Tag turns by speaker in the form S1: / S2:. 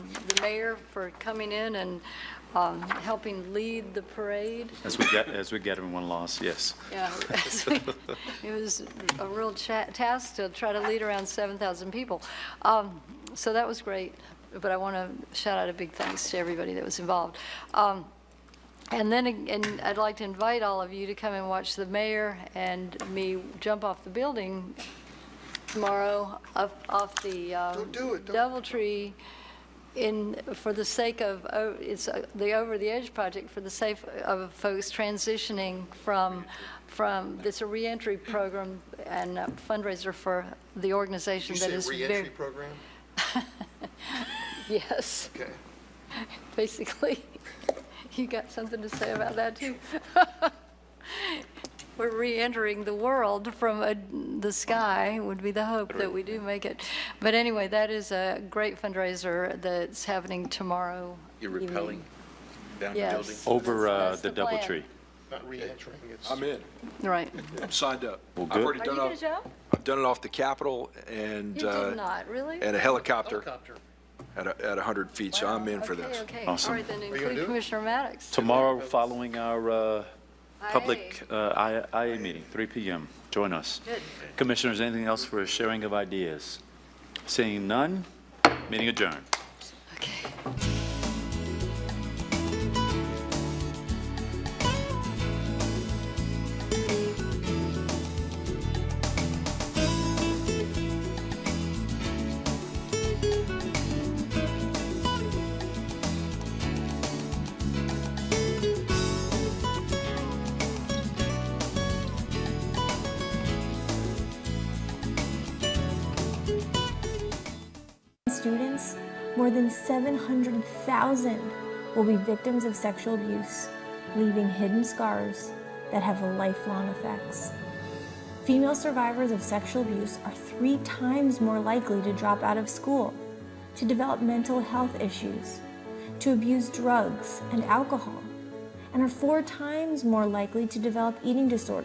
S1: mayor for coming in and um, helping lead the parade.
S2: As we get, as we get in one loss, yes.
S1: Yeah, It was a real cha- task to try to lead around 7,000 people. Um, So that was great, but I want to shout out a big thanks to everybody that was involved. Um, And then, ag- and I'd like to invite all of you to come and watch the mayor and me jump off the building tomorrow, off off the uh,
S3: Don't do it, don't-
S1: Doubletree in, for the sake of, oh, it's uh, the Over the Edge project, for the sake of folks transitioning from, from, it's a reentry program and a fundraiser for the organization
S3: You
S1: that
S3: say
S1: is very.
S3: reentry program?
S1: Yes,
S3: Okay.
S1: basically. You got something to say about that, too? We're reentering the world from a- the sky, would be the hope that we do make it. But anyway, that is a great fundraiser that's happening tomorrow
S4: You're
S1: evening.
S4: repelling down the building?
S1: Yes.
S2: Over uh,
S1: That's
S2: the
S1: the plan.
S2: Doubletree.
S3: Not reentering, it's.
S5: Oh, I'm in.
S1: Right.
S5: I'm signed up.
S2: Well,
S5: I've
S2: good.
S5: already
S1: Are you
S5: done
S1: going
S5: off,
S1: to jump?
S5: I've done it off the Capitol and,
S1: You did
S5: uh,
S1: not, really?
S5: and a helicopter
S3: Helicopter.
S5: at, a- at 100 feet, so I'm in for
S1: Okay,
S5: this.
S1: Okay, all
S2: Awesome.
S1: right, then
S3: you gonna do
S1: include
S3: it?
S1: Commissioner Maddox.
S2: Tomorrow, following our uh, public
S1: Aye.
S2: uh, I- IA meeting, 3 PM. Join us.
S1: Good.
S2: Commissioners, anything else for a sharing of ideas? Seeing none, meeting adjourned.
S1: Okay.
S6: students, more than 700,000 will be victims of sexual abuse, leaving hidden scars that have lifelong effects. Female survivors of sexual abuse are three times more likely to drop out of school, to develop mental health issues, to abuse drugs and alcohol, and are four times more likely to develop eating disorders.